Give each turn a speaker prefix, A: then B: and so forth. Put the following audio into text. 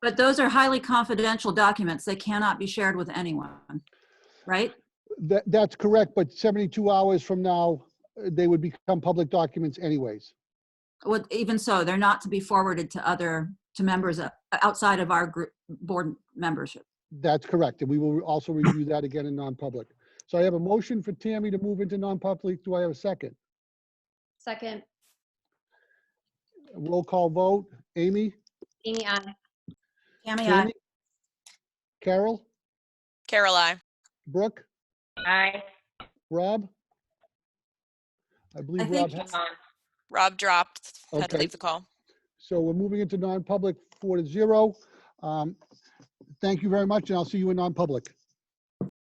A: But those are highly confidential documents. They cannot be shared with anyone, right?
B: That, that's correct, but 72 hours from now, uh, they would become public documents anyways.
A: With, even so, they're not to be forwarded to other, to members o- outside of our group, board membership.
B: That's correct, and we will also review that again in non-public. So I have a motion for Tammy to move into non-public. Do I have a second?
C: Second,
B: Roll call vote. Amy?
C: Amy, I.
A: Tammy, I,
B: Jamie, Carol?
D: Carol, I.
B: Brooke?
C: Aye.
B: Rob? I
A: I
B: believe Rob,
A: think-
B: ha-
D: Rob dropped, had
B: Okay.
D: to leave the call.
B: so we're moving into non-public four to zero. Um, Thank you very much, and I'll see you in non-public.